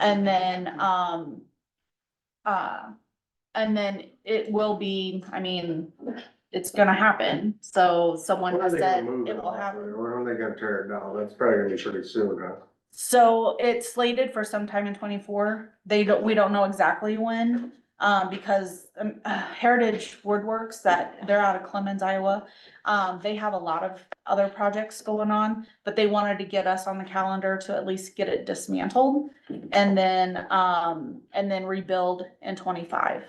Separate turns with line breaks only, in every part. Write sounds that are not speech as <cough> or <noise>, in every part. And then, um, uh, and then it will be, I mean, it's gonna happen. So someone
When are
has
they gonna
said
move
it will
off
happen.
there? When are they gonna tear it down? That's probably gonna be pretty soon, huh?
So it's slated for sometime in twenty-four. They don't, we don't know exactly when, um, because um, <sighs> uh, Heritage Woodworks that, they're out of Clemens, Iowa. Um, they have a lot of other projects going on, but they wanted to get us on the calendar to at least get it dismantled and then, um, and then rebuild in twenty-five.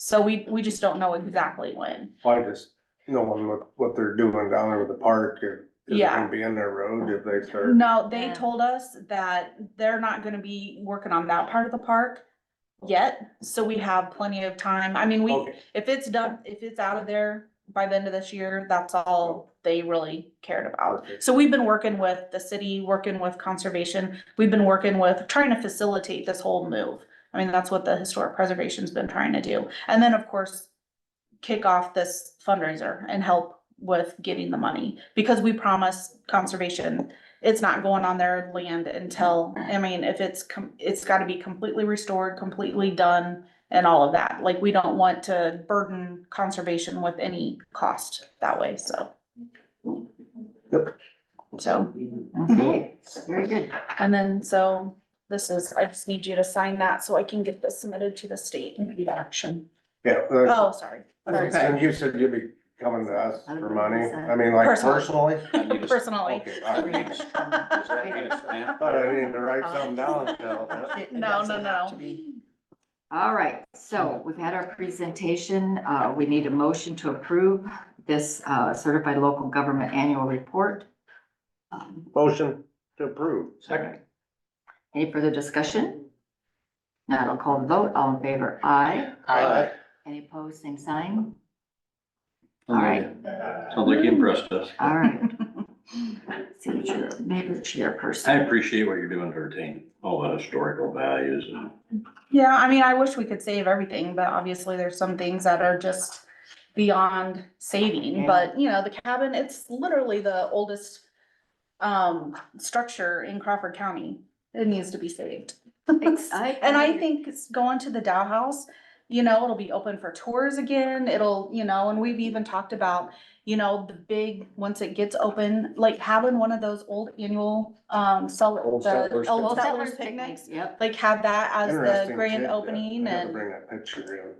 So we, we just don't know exactly when.
I just, no one what, what they're doing down there with the park, if, if it
Yeah.
can be in their road if they start.
No, they
Yeah.
told us that they're not gonna be working on that part of the park yet, so we have plenty of time. I mean, we,
Okay,
if it's done, if it's out of there by the end of this year, that's all they really cared about.
Okay.
So we've been working with the city, working with conservation, we've been working with, trying to facilitate this whole move. I mean, that's what the historic preservation's been trying to do. And then, of course, kick off this fundraiser and help with getting the money, because we promise conservation, it's not going on their land until, I mean, if it's, com- it's gotta be completely restored, completely done and all of that. Like, we don't want to burden conservation with any cost that way, so. So,
Okay, very good.
and then, so this is, I just need you to sign that so I can get this submitted to the state. Action.
Yeah, uh,
Oh, sorry. Sorry. <laughs>
Okay.
and you said you'd be coming to us for money, I mean, like
Personally.
personally?
<laughs> Personally.
Okay,
<laughs>
all right. Thought I needed to write something down, so.
No, no, no.
All right, so we've had our presentation. Uh, we need a motion to approve this, uh, certified local government annual report. Um,
Motion to approve.
Any further discussion? Now I'll call the vote. All in favor, aye.
Aye.
Any opposed, same sign? All right,
Sounds like you impressed us.
all <laughs> right. Signature, neighbor chairperson.
I appreciate what you're doing to retain all the historical values and
Yeah, I mean, I wish we could save everything, but obviously there's some things that are just beyond saving,
Yeah.
but you know, the cabin, it's literally the oldest um, structure in Crawford County. It needs to be saved. <laughs>
I-
And
Mm-hmm.
I think it's going to the Dow House, you know, it'll be open for tours again. It'll, you know, and we've even talked about, you know, the big, once it gets open, like having one of those old annual, um, sell,
Old
the
settlers
old
picnic.
settlers picnics.
Yep,
Like have that as the
Interesting
grand
tidbit.
opening
I had to
and,
Bring that picture in,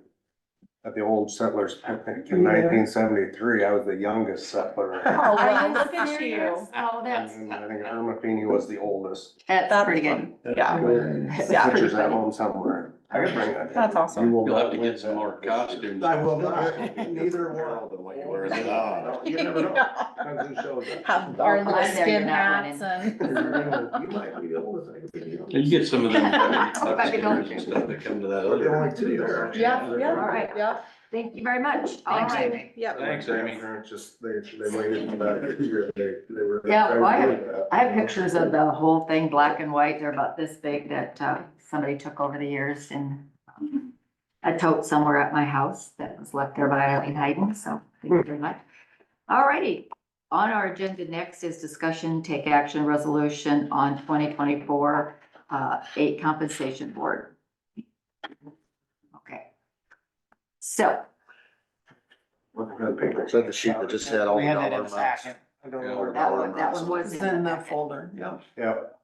at the old settlers picnic in nineteen seventy-three, I was the youngest
<laughs>
settler.
oh,
Are
well,
you
look at
serious?
you.
Oh, that's,
And I think Irma Fini was the oldest.
that's
That's
pretty good.
fun. Yeah,
<laughs>
Yeah.
Pictures at home somewhere. I could bring that.
that's awesome.
you'll have to get some more costumes.
I will not. <laughs> Neither will.
Than what you wear now.
oh,
<laughs>
<laughs>
You never know. Depends who shows up.
Have our little
I'm there,
skin
you're not winning.
hats
<laughs>
<laughs>
and,
You might be the oldest. I could be the
You
oldest.
get some of <laughs> them
Might be going
upstairs
to.
and stuff that come to that
They're
other.
only two there.
<laughs> yeah, yeah.
All right.
Yeah.
Thank you very much. All
Thank
right.
you. Yep.
Thanks, Amy.
My parents Just, they, they waited for that year, they, they were.
Yeah, well, I
they were
have-
doing that.
I have pictures of the whole thing, black and white. They're about this big that uh, somebody took over the years and um, a tote somewhere at my house that was left there by Eileen Hayden, so thank you very much. All righty. On our agenda next is discussion, take action, resolution on twenty twenty-four uh, eight compensation board. Okay. So
Look at that picture.
So the sheet that just said all
We
the
had that
dollar
in a
amounts.
packet.
I don't
Yeah,
know. where
that
dollar
one, that
amounts
one was
It's
in
in the
that folder.
folder, yeah.
Yep.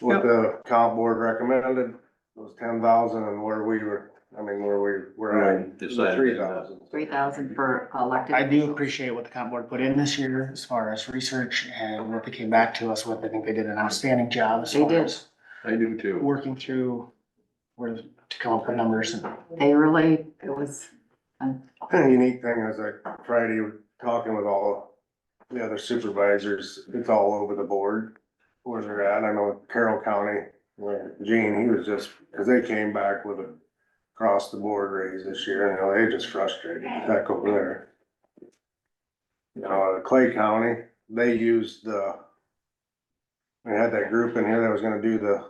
What the comp board recommended was ten thousand and where we were, I mean, where we were at.
Decided.
Three thousand.
Three thousand for elected.
I do
officials.
appreciate what the comp board put in this year as far as research and what they came back to us with. I think they did an outstanding job as
They
far
did.
as
I do too.
working through where to come up with numbers and
They really, it was,
The unique thing is like Friday, talking with all the other supervisors, it's all over the board where they're at. I know Carroll County, where Gene, he was just, cause they came back with a across the board raise this year and you know, they just frustrated heck over there. You know, uh, Clay County, they used the they had that group in here that was gonna do the,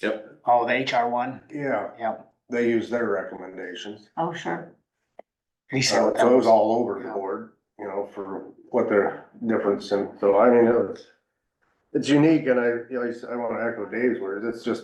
Yep.
oh, the HR one,
yeah,
yep.
they used their recommendations.
oh, sure.
He
Uh,
Uh,
said
So
what that
it was
was.
all over the board, you know, for what their difference and so I mean, it was. It's unique and I, you know, I s- I wanna echo Dave's words, it's just